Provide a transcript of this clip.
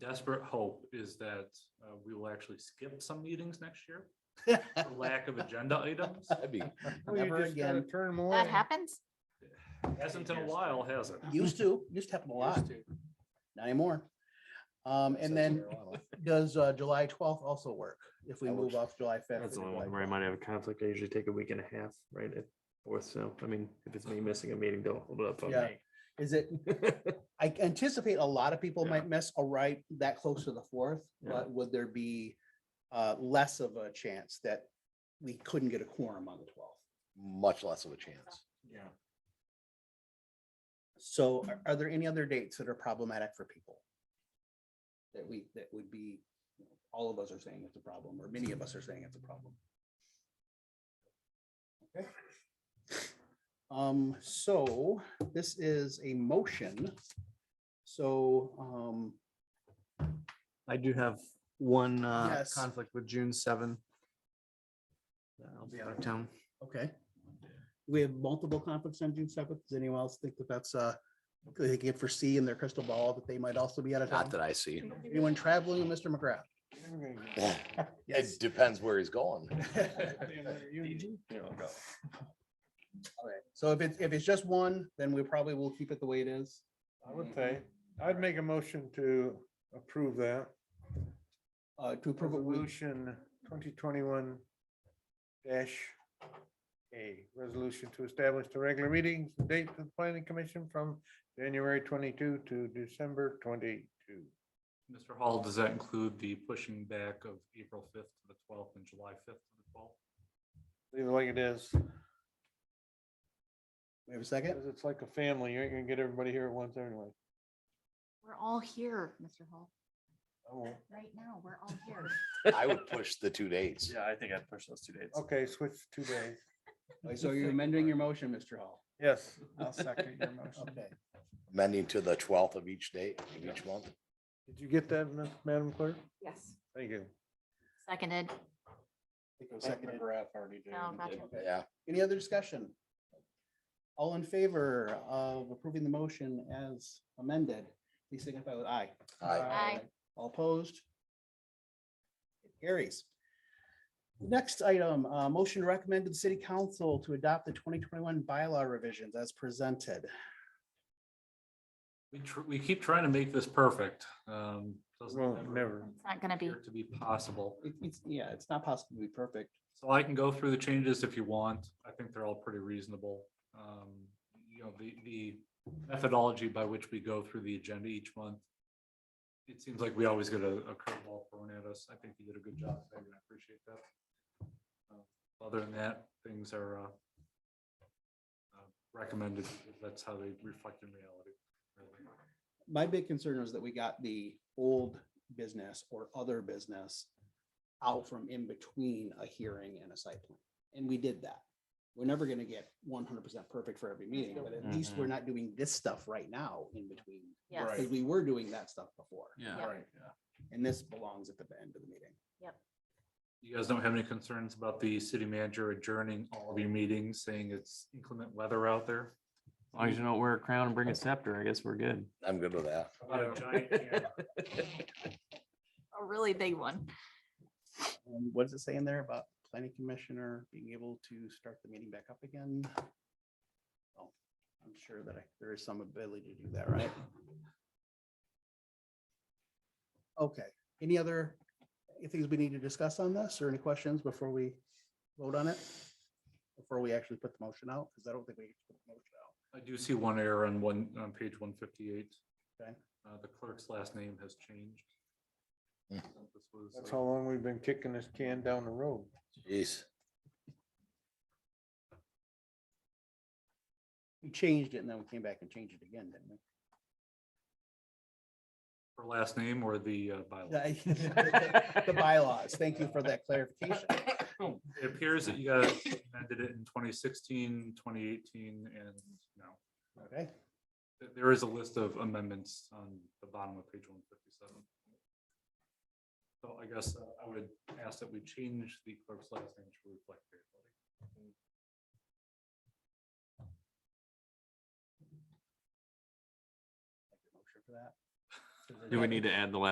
desperate hope is that uh, we will actually skip some meetings next year for lack of agenda items. That'd be, Well, you Never Oh, just gotta again. Turn them away. That happens? Hasn't in a while, has it? Used to, used to happen a lot, not anymore. Um, and then does uh, July twelfth also work if we That move works. off July fifth? That's the only one where I might have a conflict. I usually take a week and a half, right? At fourth, so I mean, if it's me missing a meeting, don't hold it up on Yeah. me. Is it, I anticipate a lot of people Yeah. might miss a right that close to the fourth, Yeah. but would there be uh, less of a chance that we couldn't get a quorum on the twelfth? much less of a chance. Yeah. So are, are there any other dates that are problematic for people? That we, that would be, you know, all of us are saying it's a problem, or many of us are saying it's a problem. Okay. Um, so this is a motion. So, um, I do have one uh, Yes. conflict with June seventh. I'll be out of town. okay. We have multiple conflicts on June seventh. Does anyone else think that that's, uh, they can foresee in their crystal ball that they might also be out of Not town? that I see. Anyone traveling, Mr. McGrath? It depends where he's going. uh, Alright, So if it's, if it's just one, then we probably will keep it the way it is. I would say, I'd make a motion to approve that. Uh, to approve it, we- Resolution twenty twenty-one dash A, resolution to establish the regular meetings, and date for the planning commission from January twenty-two to December twenty-two. Mr. Hall, does that include the pushing back of April fifth to the twelfth and July fifth to the twelfth? Leave it like it is, we have a second? because it's like a family, you ain't gonna get everybody here at once anyway. We're all here, Mr. Hall. I won't. Right now, we're all here. I would push the two dates. Yeah, I think I'd push those two dates. Okay, switch two days. So you're amending your motion, Mr. Hall? Yes, I'll second your motion. Okay. Amending to the twelfth of each date, of each month. Did you get that, Ma- Madam Clerk? Yes. Thank you. Seconded. Seconded. No, gotcha. Okay. Yeah, Any other discussion? All in favor of approving the motion as amended, please signify with aye. I, Aye. All opposed? It Carries. Next item, uh, motion recommended to the city council to adopt the twenty twenty-one bylaw revisions as presented. We tr- we keep trying to make this perfect. Um, doesn't Well, ever never. It's not gonna be, appear to be possible. It- It's, yeah, it's not possible to be perfect. So I can go through the changes if you want. I think they're all pretty reasonable. Um, you know, the, the methodology by which we go through the agenda each month. It seems like we always get a, a curveball thrown at us. I think you did a good job. Peg, and I appreciate that. Uh, Other than that, things are, uh, uh, recommended. That's how they reflect in reality. really. my big concern was that we got the old business or other business out from in between a hearing and a site plan. And we did that. We're never gonna get one hundred percent perfect for every meeting, but at least we're not doing this stuff right now in between. yes. Because we were doing that stuff before, Yeah. and this belongs at the end of the meeting. You guys don't have any concerns about the city manager adjourning all of your meetings, saying it's inclement weather out there? As long as you don't wear a crown and bring a scepter, I guess we're good. I'm good with that. About a giant can. A really big one. Um, What does it say in there about planning commissioner being able to start the meeting back up again? Oh, I'm sure that I- there is some ability to do that, right? Okay, any other things we need to discuss on this or any questions before we vote on it? Before we actually put the motion out, because I don't think we. put the motion out. I do see one error on one, on page one fifty-eight. Okay. Uh, the clerk's last name has changed. Hmm. This was, That's uh, how long we've been kicking this can down the road. Jeez. We changed it and then we came back and changed it again, didn't we? Her last name or the uh, bylaw. The the bylaws, thank you for that clarification. It appears that you guys amended it in 2016, 2018, and no. Okay. There- There is a list of amendments on the bottom of page one fifty-seven. So I guess uh, I would ask that we change the clerk's last name to reflect. everybody. Motion for that. Do we need to add the last